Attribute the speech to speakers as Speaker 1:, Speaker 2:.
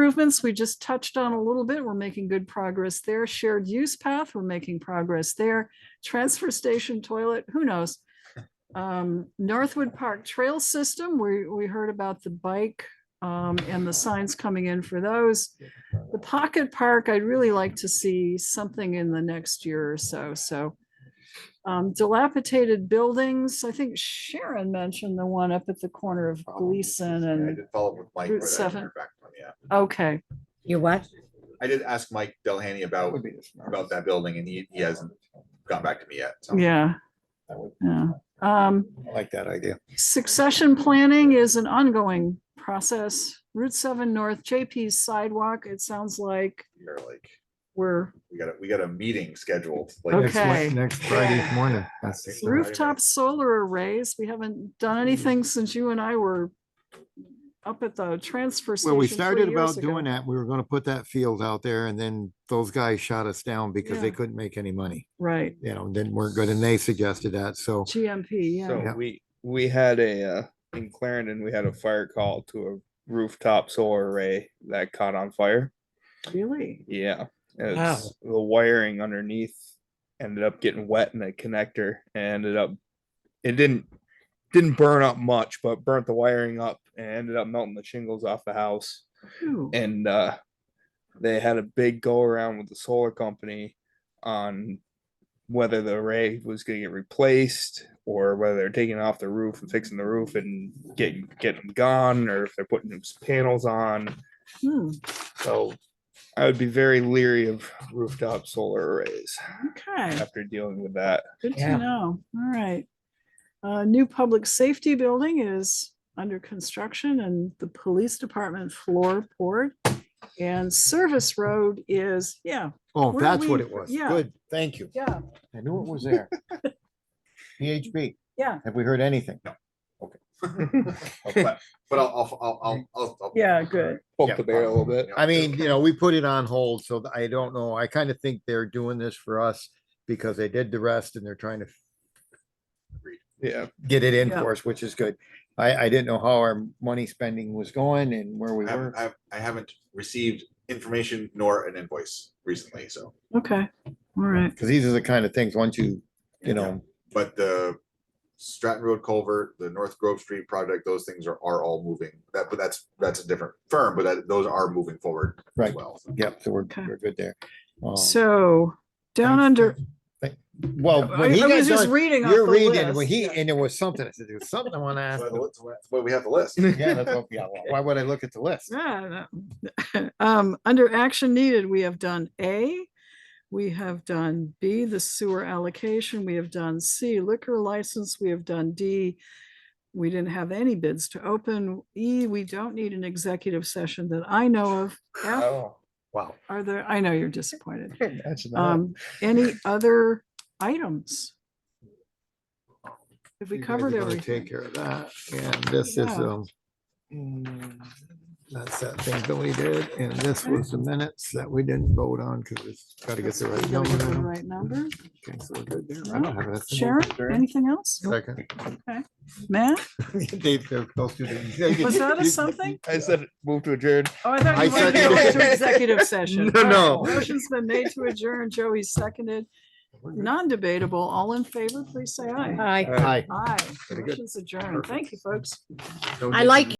Speaker 1: improvements we just touched on a little bit. We're making good progress there. Shared use path, we're making progress there. Transfer station toilet, who knows? Um, Northwood Park Trail System, we, we heard about the bike um, and the signs coming in for those. The Pocket Park, I'd really like to see something in the next year or so, so. Um, dilapidated buildings, I think Sharon mentioned the one up at the corner of
Speaker 2: Oh,
Speaker 1: Gleason
Speaker 2: I
Speaker 1: and,
Speaker 2: did follow up with Mike.
Speaker 1: Route
Speaker 2: but I didn't
Speaker 1: seven.
Speaker 2: hear back from him yet.
Speaker 1: okay,
Speaker 3: You what?
Speaker 2: I did ask Mike Delhany about, about that building and he, he hasn't gotten back to me yet. so.
Speaker 1: yeah. Yeah, um,
Speaker 4: Like that idea.
Speaker 1: Succession planning is an ongoing process. Route seven north, JP's sidewalk, it sounds like
Speaker 2: You're like,
Speaker 1: we're
Speaker 2: we got a, we got a meeting scheduled. like,
Speaker 1: Okay.
Speaker 4: Next Wed- Next Friday morning. That's the
Speaker 2: Roof
Speaker 4: third.
Speaker 1: rooftop solar arrays. We haven't
Speaker 4: Hmm.
Speaker 1: done anything since you and I were up at the transfer
Speaker 4: Well, we
Speaker 1: station
Speaker 4: started
Speaker 1: three years
Speaker 4: about doing
Speaker 1: ago.
Speaker 4: that. We were gonna put that field out there and then those guys shot us down because they
Speaker 1: Yeah.
Speaker 4: couldn't make any money.
Speaker 1: Right,
Speaker 4: You know, didn't weren't good and they suggested that, so.
Speaker 1: GMP, yeah.
Speaker 5: So
Speaker 4: Yeah.
Speaker 5: we, we had a, uh, in Clarendon, we had a fire call to a rooftop solar array that caught on fire.
Speaker 1: Really?
Speaker 5: Yeah. and It's the wiring underneath ended up getting wet in the connector and ended up, it didn't, didn't burn up much, but burnt the wiring up and ended up melting the shingles off the house.
Speaker 1: Ooh,
Speaker 4: Eh.
Speaker 5: and uh, they had a big go around with the solar company on whether the array was going to get replaced or whether they're taking it off the roof and fixing the roof and getting getting them gone or if they're putting new panels on.
Speaker 1: hmm,
Speaker 5: So I would be very leery of rooftop solar arrays
Speaker 1: Okay,
Speaker 5: after dealing with that.
Speaker 1: good to
Speaker 3: Yeah.
Speaker 1: know. All right. Uh, new public safety building is under construction and the police department floorboard. And service road is, yeah,
Speaker 4: Oh,
Speaker 1: Where
Speaker 4: that's what
Speaker 1: we-
Speaker 4: it was.
Speaker 1: yeah.
Speaker 4: Good, thank you.
Speaker 1: yeah,
Speaker 4: I knew it was there. PHP,
Speaker 1: yeah,
Speaker 4: have we heard anything?
Speaker 2: But but I'll, I'll, I'll- I'll, I'll. I'll-
Speaker 1: yeah, good.
Speaker 5: Poke
Speaker 4: Yeah.
Speaker 5: the bear a little bit.
Speaker 4: I mean, you know, we put it on hold, so th- I don't know. I kind of think they're doing this for us because they did the rest and they're trying to
Speaker 5: Yeah.
Speaker 4: get it in
Speaker 1: Yeah.
Speaker 4: for us, which is good. I, I didn't know how our money spending was going and where we
Speaker 2: I haven't-
Speaker 4: were.
Speaker 2: I, have- I haven't received information nor an invoice recently, so,
Speaker 1: Okay, all right.
Speaker 4: Cause these are the kind of things, once you, you know,
Speaker 2: but the Stratton Road Culvert, the North Grove Street project, those things are, are all moving. That, but that's, that's a different firm, but that, those are moving forward as
Speaker 4: Right.
Speaker 2: well. so.
Speaker 4: yep, so we're,
Speaker 1: Okay.
Speaker 4: we're good there. Um,
Speaker 1: So down under,
Speaker 4: Well,
Speaker 1: I
Speaker 4: when he
Speaker 1: I was
Speaker 4: got
Speaker 1: just
Speaker 4: done,
Speaker 1: reading. off
Speaker 4: you're
Speaker 1: the
Speaker 4: reading, when
Speaker 1: list,
Speaker 4: he,
Speaker 1: yeah.
Speaker 4: and there was something, I said, there's something I wanna ask.
Speaker 2: But
Speaker 4: them."
Speaker 2: that's what- But we have the list.
Speaker 4: Yeah, that's what- yeah, why would I look at the list?
Speaker 1: Yeah, no. Um, under action needed, we have done A, we have done B, the sewer allocation, we have done C, liquor license, we have done D. We didn't have any bids to open. E, we don't need an executive session that I know of. F,
Speaker 5: Oh,
Speaker 4: Wow.
Speaker 1: are there, I know you're disappointed.
Speaker 5: imagine that.
Speaker 1: Um, any other items? Have we
Speaker 4: You guys
Speaker 1: covered
Speaker 4: are gonna Take
Speaker 1: everything?
Speaker 4: care of that, and this is,
Speaker 1: Yeah.
Speaker 4: um, that's that thing that we did, and this
Speaker 1: Okay.
Speaker 4: was the minutes that we didn't vote on, because it's gotta get the right
Speaker 1: Did I
Speaker 4: number.
Speaker 1: get the
Speaker 4: on 'em.
Speaker 1: Right number?
Speaker 4: Okay, so we're good there. I don't have anything.
Speaker 1: Sharon,
Speaker 5: Sharon?
Speaker 1: anything else?
Speaker 4: Second.
Speaker 1: Matt?
Speaker 4: They- they're close to the- E
Speaker 1: Was that a something?
Speaker 5: I said move to adjourn.
Speaker 1: Oh, I thought
Speaker 4: I
Speaker 1: you wanted to
Speaker 4: said-
Speaker 1: go into executive session.
Speaker 4: No,
Speaker 1: All right,
Speaker 4: no.
Speaker 1: Motion's been made to adjourn. Joey seconded. Non-debatable. All in favor, please say aye.
Speaker 3: Hi.
Speaker 4: Hi.
Speaker 1: Aye.
Speaker 4: Very good.
Speaker 1: Motion's adjourned. Thank you, folks.
Speaker 3: I like